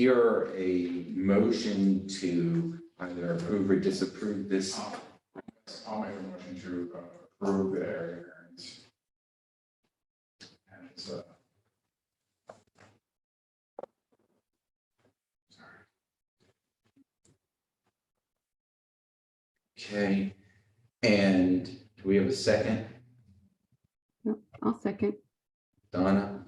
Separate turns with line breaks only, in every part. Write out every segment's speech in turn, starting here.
hear a motion to either approve or disapprove this.
I'll make a motion to uh, approve the area variance. And it's, uh. Sorry.
Okay, and do we have a second?
I'll second.
Donna?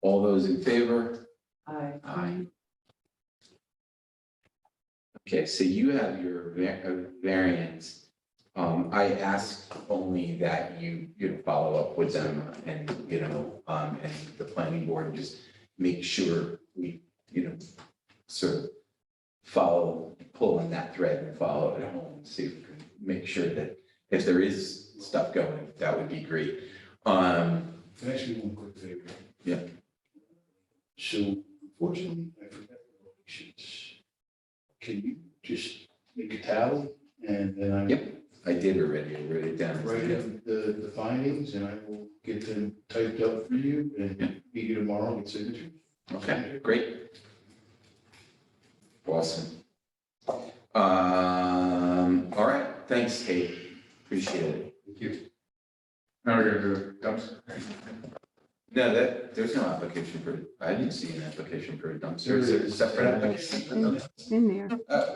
All those in favor?
Aye.
Aye. Okay, so you have your va- uh, variance. Um, I asked only that you, you know, follow up with them and, you know, um, and the planning board and just make sure we, you know, sort of follow, pull on that thread and follow it home, see if we can make sure that if there is stuff going, that would be great. Um,
And Actually, one quick favor.
Yeah.
So unfortunately, I forgot the locations. Can you just make a tally and then I
Yep. I did already, I wrote it down.
write in the, the findings and I will get them typed up for you and meet you tomorrow with signatures?
Okay, great. Awesome. Um, all right, thanks, Kate. Appreciate it.
Thank you. Now we're gonna do a dumpster.
No, that, there's no application for, I didn't see an application for a dumpster.
There
Is there a
is.
separate application?
In there.
Uh,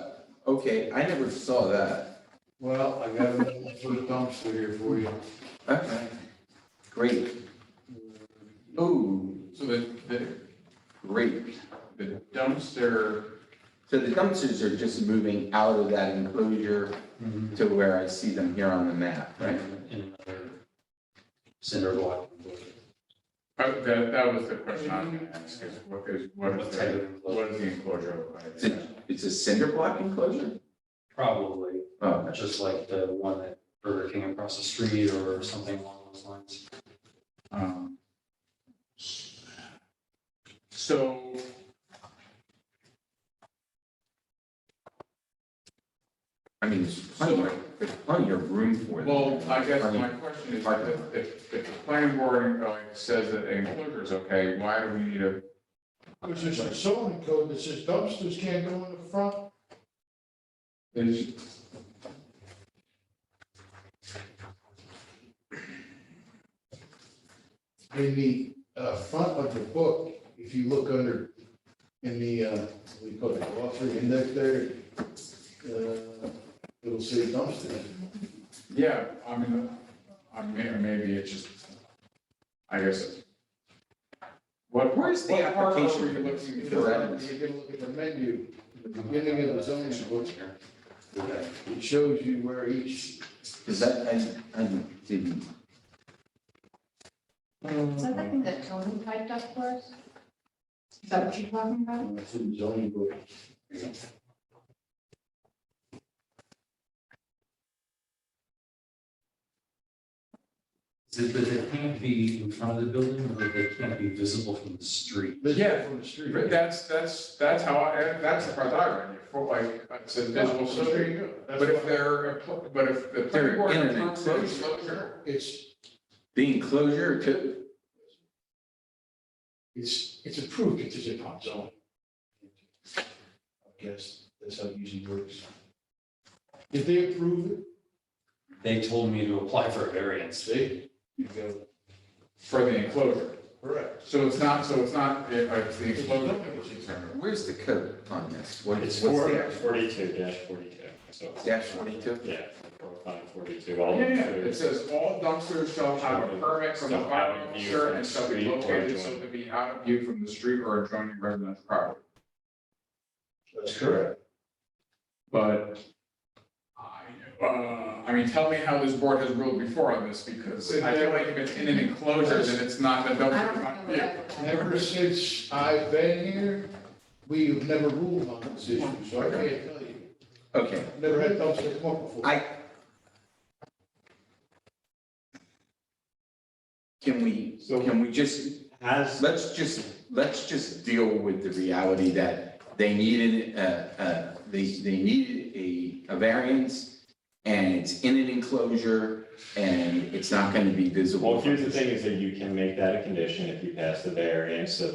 Okay, I never saw that.
Well, I got another one for the dumpster here for you.
Okay, great. Oh,
So the, the,
great.
the dumpster,
So the dumpsters are just moving out of that enclosure to where I see them here on the map, right?
Mm-hmm. in another cinder block.
uh, that, that was the question I was gonna ask, is what is, what
What
is
type
the,
of
what
enclosure?
is the enclosure look like?
It's a, it's a cinder block enclosure?
Probably,
Oh,
just like the one that Burger King across the street or something along those lines.
Um, So.
I mean, there's plenty, of- there's plenty of room for them.
Well, I guess
Plenty-
my question is, if, if, if the planning board uh, says that an enclosure is okay, why do we need a,
Which is a zoning code that says dumpsters can't go in the front.
is,
In the uh, front of the book, if you look under, in the, uh, what do you call it, glossary index there, uh, it'll say dumpsters.
yeah, I mean, I mean, maybe it's just, I guess. What,
Where's the
what part are we
application for this?
looking
Because I don't-
If you look at the menu, the beginning of the zoning book, it shows you where each,
Cause that, I, I didn't,
Is that the thing that Tony typed up for us? Is that what you're talking about?
it's in the zoning book.
Is it that they can't be in front of the building or that they can't be visible from the street?
Visible From the street.
But that's, that's, that's how I, that's the part I read, for like, it's a visible
So there
street.
you go. That's
But if
why-
they're, impl- but if the
They're
planning board
in an
determines an
enclosure.
enclosure,
It's,
the enclosure to,
it's, it's approved, it's just a hot zone. I guess that's how it usually works. If they approve it,
They told me to apply for a variance.
say, you go,
for the enclosure.
correct.
So it's not, so it's not, if it's the enclosure that we're concerned with.
where's the code on this? What
It's
is, what's
four-
the actual-
42 dash 42, so.
dash twenty-two?
Yeah, four, five, 42, all.
Yeah,
of
yeah,
those.
it says all dumpsters shall have a permit from the
Shall have
fire
a view
officer
from
and shall be
street or
located so
adjoining.
to be out of view from the street or adjoining residential property.
That's correct.
But I, uh, I mean, tell me how this board has ruled before on this, because I feel like if it's in an enclosure, then it's not the
I
dumpster.
don't
not-
know.
yeah.
what I-
Ever since I've been here, we've never ruled on this issue, so I can't tell you.
Okay,
Never had dumpster come up before.
I. Can we, can we just
Has,
let's just, let's just deal with the reality that they needed, uh, uh, they, they needed a, a variance and it's in an enclosure and it's not gonna be visible.
well, here's
from
the
the
thing is that you can make that a condition if you pass the variance, so